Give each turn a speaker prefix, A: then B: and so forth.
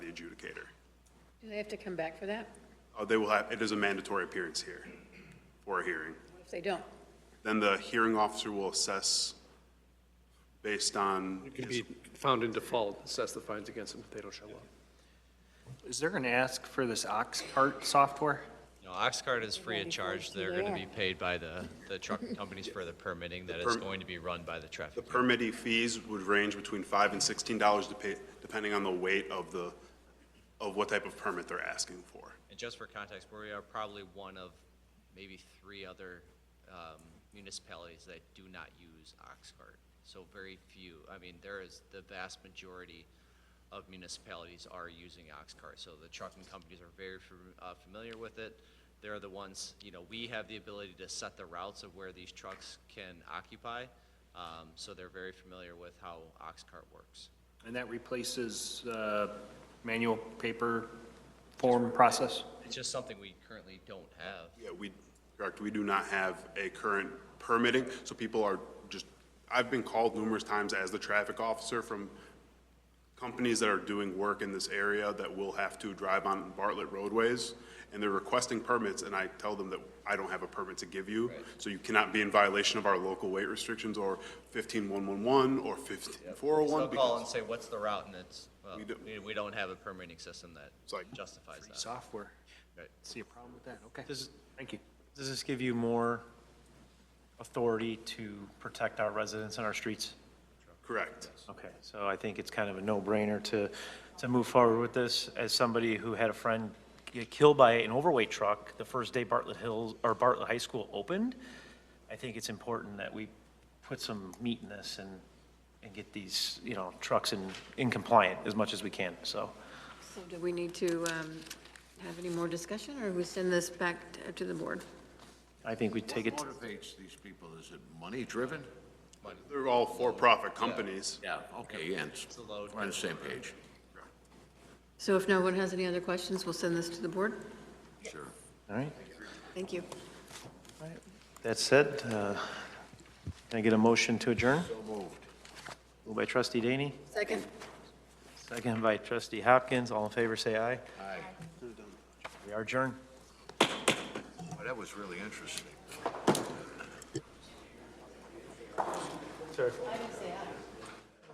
A: the adjudicator.
B: Do they have to come back for that?
A: Uh, They will have, it is a mandatory appearance here for a hearing.
B: What If they don't?
A: Then the hearing officer will assess based on,
C: It can be found in default, assess the fines against them if they don't show up.
D: Is there an ask for this ox cart software?
E: No, Oxcart is free of charge. They're going to be
B: Yeah.
E: paid by the, the truck companies for the permitting that is
A: perm-
E: going to be run by the
A: the
E: traffic.
A: permittee fees would range between five and sixteen dollars depending on the weight of the, of what type of permit they're asking for.
E: And just for context, we are probably one of maybe three other um, municipalities that do not use Oxcart. So very few, I mean, there is, the vast majority of municipalities are using Oxcart. So the trucking companies are very fam- uh, familiar with it. They're the ones, you know, we have the ability to set the routes of where these trucks can occupy. um, So they're very familiar with how Oxcart works.
D: And that replaces uh, manual paper form process?
E: It's just something we currently don't have.
A: Yeah, we, correct, we do not have a current permitting, so people are just, I've been called numerous times as the traffic officer from companies that are doing work in this area that will have to drive on Bartlett roadways, and they're requesting permits, and I tell them that I don't have a permit to give you, so you cannot be in violation of our local weight restrictions or 15111 or
E: They'll
A: 15401.
E: call
A: because
E: and say, what's the route, and it's, well,
A: We don't-
E: we- we don't have a permitting system that
A: It's like-
E: justifies that.
D: Software.
E: Right.
D: See a problem with that? Okay.
F: Does,
D: Thank you.
F: does this give you more authority to protect our residents and our streets?
A: Correct.
F: Okay, so I think it's kind of a no-brainer to, to move forward with this. As somebody who had a friend get killed by an overweight truck the first day Bartlett Hills, or Bartlett High School opened, I think it's important that we put some meat in this and, and get these, you know, trucks in, in compliant as much as we can, so.
B: So do we need to um, have any more discussion, or we send this back t- to the board?
F: I think we take it.
G: What motivates these people? Is it money-driven?
A: They're all for-profit companies.
G: Yeah. Okay, and it's-
E: the load.
G: we're on the same page.
B: So if no one has any other questions, we'll send this to the board?
G: Sure.
F: All right.
B: Thank you.
F: That said, uh, can I get a motion to adjourn?
G: So moved.
F: Moved by trustee Daney,
B: Second?
F: second by trustee Hopkins. All in favor, say aye.
G: Aye.
F: We are adjourned.
G: Boy, that was really interesting.
F: Sir.